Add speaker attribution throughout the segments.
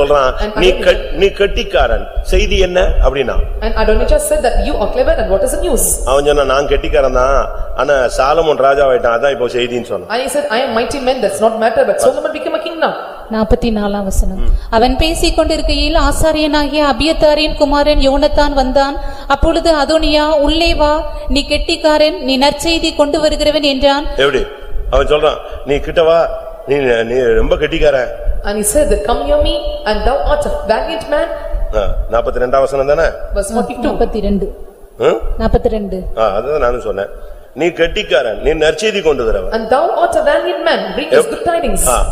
Speaker 1: சொல்றான் நீ கட்- நீ கெட்டிக்காரன் செய்தி என்ன அப்படின்னா
Speaker 2: And Adonijah said that you are clever and what is the news?
Speaker 1: அவன் சொன்னா நான் கெட்டிக்காரன் தான் ஆனா சாலமோன் ராஜாவாயிட்டான் அதான் இப்போ செய்தின்னு சொன்னான்
Speaker 2: And he said, I am mighty man, that's not matter, but Solomon became a king now.
Speaker 3: 44 வசனம் அவன் பேசிக் கொண்டிருக்கையில் ஆசாரியனாகிய அபியத்தாரின் குமாரன் யோனத்தான் வந்தான் அப்பொழுது அதோனியா உள்ளே வா நீ கெட்டிக்காரன் நீ நற்செய்தி கொண்டு வருகிறவன் என்றான்
Speaker 1: எப்படி அவன் சொல்றான் நீ கிட்டவா நீ நீ ரொம்ப கெட்டிக்காரன்
Speaker 2: And he said that come near me and thou art a valiant man,
Speaker 1: நாற்பத்தி ரெண்டாம் வசனம் தானே
Speaker 2: verse forty-two.
Speaker 3: 42
Speaker 1: ம்?
Speaker 3: 42
Speaker 1: ஆ, அதுதான் நானும் சொன்னேன் நீ கெட்டிக்காரன் நீ நற்செய்தி கொண்டு வரவன்
Speaker 2: And thou art a valiant man, bring us good tidings.
Speaker 1: Ah.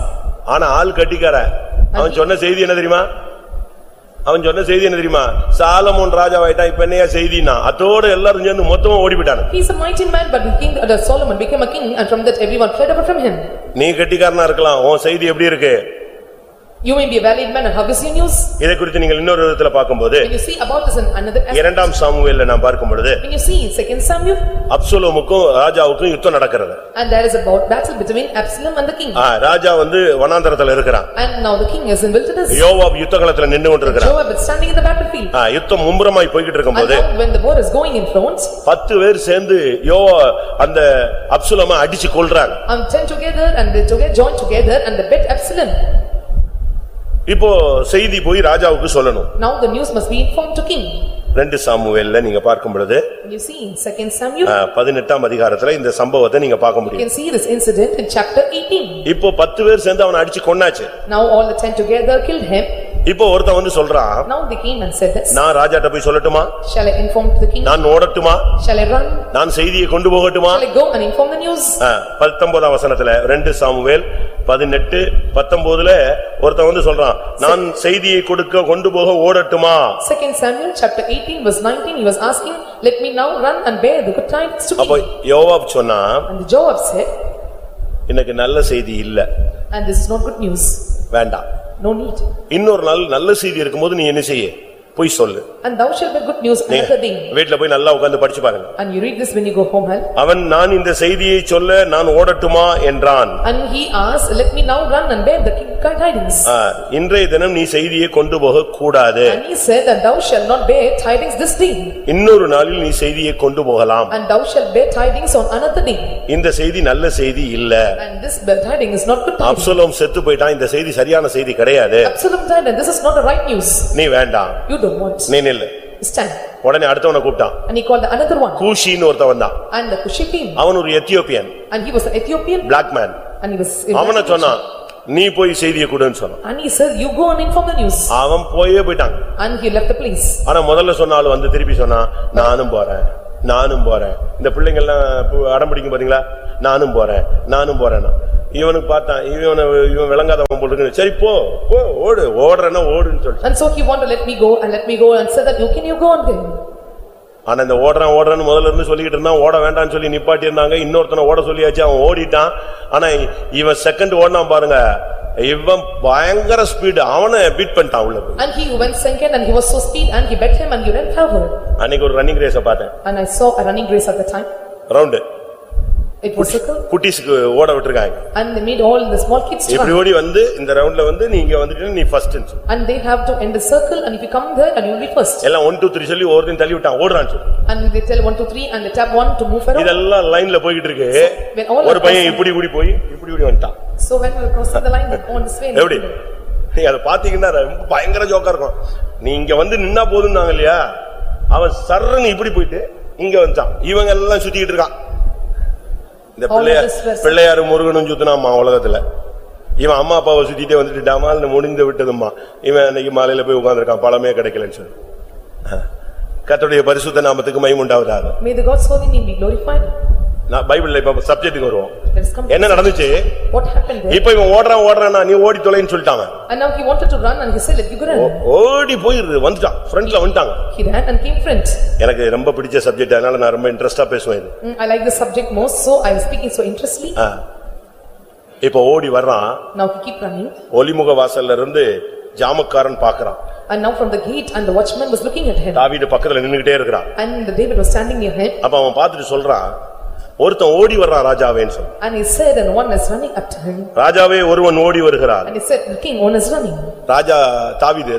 Speaker 1: ஆனா ஆள் கெட்டிக்காரன் அவன் சொன்ன செய்தி என்ன தெரியுமா அவன் சொன்ன செய்தி என்ன தெரியுமா சாலமோன் ராஜாவாயிட்டான் இப்ப என்னையா செய்தின்னா அதோட எல்லாரும் சேர்ந்து மொத்தமா ஓடிவிட்டானு
Speaker 2: He is a mighty man, but the king, uh, Solomon became a king and from that everyone fled away from him.
Speaker 1: நீ கெட்டிக்காரனா இருக்கலாம் உன் செய்தி எப்படி இருக்கு
Speaker 2: You may be a valiant man and how is your news?
Speaker 1: இதை குறித்து நீங்கள் இன்னொரு விதத்துல பார்க்கும்போது
Speaker 2: When you see about this in another aspect,
Speaker 1: இரண்டாம் சாமுவேல்ல நாம் பார்க்கும் பொழுது
Speaker 2: when you see in second Samuel,
Speaker 1: அப்சலோமுக்கும் ராஜாவுக்கும் யுத்தம் நடக்கிறது
Speaker 2: and there is about battle between Absalom and the king.
Speaker 1: ஆ, ராஜா வந்து வனாந்தரத்துல இருக்கிறான்
Speaker 2: And now the king is in wilderness.
Speaker 1: யோவாப் யுத்த களத்துல நின்னு கொண்டிருக்கிறான்
Speaker 2: Joab is standing in the battlefield.
Speaker 1: ஆ, யுத்தம் மும்முரமாய் போய்கிட்டு
Speaker 2: And
Speaker 1: இருக்கும்போது
Speaker 2: now when the war is going in front,
Speaker 1: பத்து பேர் சேர்ந்து யோவா அந்த அப்சலோம அடிச்சு கொல்றாங்க
Speaker 2: and ten together and they together join together and they bet Absalom.
Speaker 1: இப்போ செய்தி போய் ராஜாவுக்கு சொல்லணும்
Speaker 2: Now the news must be informed to king.
Speaker 1: ரெண்டு சாமுவேல்ல நீங்க பார்க்கும் பொழுது
Speaker 2: You see in second Samuel,
Speaker 1: ஆ, பதினெட்டாம் அதிகாரத்துல இந்த சம்பவத்தை நீங்க பார்க்க
Speaker 2: you
Speaker 1: முடியும்
Speaker 2: can see this incident in chapter eighteen.
Speaker 1: இப்போ பத்து பேர் சேர்ந்து அவனை அடிச்சு கொன்னாச்சு
Speaker 2: Now all the ten together killed him.
Speaker 1: இப்போ ஒருத்தன் வந்து சொல்றான்
Speaker 2: Now they came and said this,
Speaker 1: நான் ராஜாட்ட போய் சொல்லட்டுமா
Speaker 2: shall I inform to the king?
Speaker 1: நான் ஓடட்டுமா
Speaker 2: Shall I run?
Speaker 1: நான் செய்தியை கொண்டு போகட்டுமா
Speaker 2: Shall I go and inform the news?
Speaker 1: ஆ, பத்தொன்பதாம் வசனத்துல ரெண்டு சாமுவேல் பதினெட்டு பத்தொன்பதுல ஒருத்தன் வந்து சொல்றான் நான் செய்தியை கொடுக்க கொண்டு போக ஓடட்டுமா
Speaker 2: Second Samuel, chapter eighteen, verse nineteen, he was asking, let me now run and bear the good tidings to
Speaker 1: அப்போ
Speaker 2: king.
Speaker 1: யோவாப் சொன்னா
Speaker 2: And the Joab said,
Speaker 1: எனக்கு நல்ல செய்தி இல்ல
Speaker 2: and this is not good news,
Speaker 1: வேண்டாம்
Speaker 2: no need.
Speaker 1: இன்னொரு நாள் நல்ல செய்தி இருக்கும்போது நீ என்ன செய்ய போய் சொல்லு
Speaker 2: And thou shalt bear good news
Speaker 1: நீங்க
Speaker 2: another day.
Speaker 1: வீட்ல போய் நல்லா உட்கார்ந்து படிச்சு பாருங்க
Speaker 2: And you read this when you go home, huh?
Speaker 1: அவன் நான் இந்த செய்தியை சொல்ல நான் ஓடட்டுமா என்றான்
Speaker 2: And he asked, let me now run and bear the king tidings.
Speaker 1: ஆ, இன்றைய தினம் நீ செய்தியை கொண்டு போக கூடாது
Speaker 2: And he said, and thou shalt not bear tidings this day,
Speaker 1: இன்னொரு நாளில் நீ செய்தியை கொண்டு போகலாம்
Speaker 2: and thou shalt bear tidings on another day.
Speaker 1: இந்த செய்தி நல்ல செய்தி இல்ல
Speaker 2: And this bear tiding is not good tidings.
Speaker 1: Absalom செத்து போயிட்டான் இந்த செய்தி சரியான செய்தி கிடையாது
Speaker 2: Absalom died, and this is not the right news.
Speaker 1: நீ வேண்டாம்
Speaker 2: You don't want.
Speaker 1: நீ நில்லு
Speaker 2: Stand.
Speaker 1: உடனே அடுத்தவனை கூப்பிட்டான்
Speaker 2: And he called another one,
Speaker 1: கூஷின்னு ஒருத்தன் வந்தான்
Speaker 2: and the Cushi came,
Speaker 1: அவன் ஒரு Ethiopian
Speaker 2: and he was an Ethiopian,
Speaker 1: black man
Speaker 2: and he was.
Speaker 1: அவனை சொன்னான் நீ போய் செய்தியை கொடுன்னு சொன்னான்
Speaker 2: And he said, you go and inform the news.
Speaker 1: அவன் போயே போயிட்டான்
Speaker 2: And he left the place.
Speaker 1: ஆனா முதல்ல சொன்ன ஆளு வந்து திருப்பி சொன்னான் நானும் போறேன் நானும் போறேன் இந்த பிள்ளைங்க எல்லாம் பு- அடம் பிடிக்கும் பாத்தீங்களா நானும் போறேன் நானும் போறேன்னா இவனுக்கு பார்த்தான் இவனை இவன் விளங்காதவன் போட்டுருக்கு சரி போ போ ஓடு ஓடுறேன்னா ஓடுன்னு சொல்லிட்டு
Speaker 2: And so he wanted, let me go, and let me go, and said that, you can you go on then?
Speaker 1: ஆனா இந்த ஓடுறான் ஓடுறான்னு முதல்ல இருந்து சொல்லிக்கிட்டு இருந்தான் ஓட வேண்டாம்னு சொல்லி நிப்பாட்டி இருந்தாங்க இன்னொருத்தனை ஓட சொல்லியாச்சு அவன் ஓடிட்டான் ஆனா இ- இவன் செகண்ட் ஓடுனான் பாருங்க இவன் பயங்கர ஸ்பீடு அவனை பீட் பண்ணிட்டான் உள்ள போய்.
Speaker 2: And he who went second and he was so speed and he bet him and he ran forward.
Speaker 1: அன்னைக்கு ஒரு ரன்னிங் ரேஸ பார்த்தேன்
Speaker 2: And I saw a running race at the time.
Speaker 1: Round
Speaker 2: It was circle
Speaker 1: குட்டீஸ்க்கு ஓட விட்டுருக்காங்க
Speaker 2: and they made all the small kids to
Speaker 1: இப்படி
Speaker 2: run.
Speaker 1: ஓடி வந்து இந்த ரவுண்ட்ல வந்து நீ இங்க வந்துட்டு நீ first
Speaker 2: And they have to end the circle and if you come there and you will be first.
Speaker 1: எல்லாம் ஒன் டூ த்ரீ சொல்லி ஒருத்தையும் தள்ளி விட்டான் ஓடுறான்னு சொல்லி
Speaker 2: And they tell one, two, three and they tap one to move around.
Speaker 1: இதெல்லாம் லைன்ல போய்கிட்டு இருக்கு
Speaker 2: when all
Speaker 1: ஒரு
Speaker 2: are
Speaker 1: பையன்
Speaker 2: crossing-
Speaker 1: இப்படி இப்படி போய் இப்படி இப்படி வந்துட்டான்
Speaker 2: So when we were crossing the line, they go on this way. and
Speaker 1: எப்படி நீ அதை பாத்தீங்கன்னா ரொம்ப பயங்கர ஜோக்கா இருக்கும் நீ இங்க வந்து நின்னா போதும்னாங்க இல்லையா அவன் சர்றன்னு இப்படி போயிட்டு இங்க வந்துட்டான் இவங்க எல்லாம் சுத்திக்கிட்டு இருக்கான் இந்த
Speaker 2: All
Speaker 1: Pillaiyar
Speaker 2: of us were-
Speaker 1: பிள்ளையாரு முருகனும் சுத்தினாம்மா உலகத்துல இவன் அம்மா அப்பாவை சுத்திட்டே வந்துட்டுடாமா இல்ல முடிந்து விட்டதும்மா இவன் அன்னைக்கு மாலையில போய் உட்கார்ந்திருக்கான் பழமே கிடைக்கலன்னு சொல்லி கர்த்தருடைய பரிசுத்த நாமத்துக்கு மைமுண்டாவதாக
Speaker 2: May the God's holy name be glorified.
Speaker 1: நான் பைபிள்ல இப்ப சப்ஜெக்ட்டுக்கு வருவோம்
Speaker 2: Let us come. to-
Speaker 1: என்ன நடந்துச்சு
Speaker 2: What happened there?
Speaker 1: இப்ப இவன் ஓடுறான் ஓடுறான்னா நீ ஓடி தொலைன்னு சொல்லிட்டாங்க
Speaker 2: And now he wanted to run and he said, let you go
Speaker 1: Oh.
Speaker 2: run.
Speaker 1: ஓடி போய் வந்துட்டான் ஃப்ரண்ட்ல வந்துட்டாங்க
Speaker 2: He ran and came front.
Speaker 1: எனக்கு ரொம்ப பிடிச்ச சப்ஜெக்ட் அதனால நான் ரொம்ப இன்ட்ரெஸ்டா பேசுவேன் இது
Speaker 2: Mm, I like the subject most, so I am speaking so interestedly.
Speaker 1: ஆ. இப்போ ஓடி வர்றான்
Speaker 2: Now he keep running.
Speaker 1: ஒலிமுக வாசல்ல இருந்து ஜாமக்காரன் பாக்குறான்
Speaker 2: And now from the gate and the watchman was looking at him.
Speaker 1: தாவீது பக்கத்துல நின்னுகிட்டே இருக்கிறான்
Speaker 2: And David was standing near him
Speaker 1: அப்ப அவன் பார்த்துட்டு சொல்றான் ஒருத்தன் ஓடி வர்றான் ராஜாவேன்னு சொல்லு
Speaker 2: And he said, and one is running up to him.
Speaker 1: ராஜாவே ஒருவன் ஓடி வருகிறார்
Speaker 2: And he said, the king, one is running.
Speaker 1: ராஜா தாவீது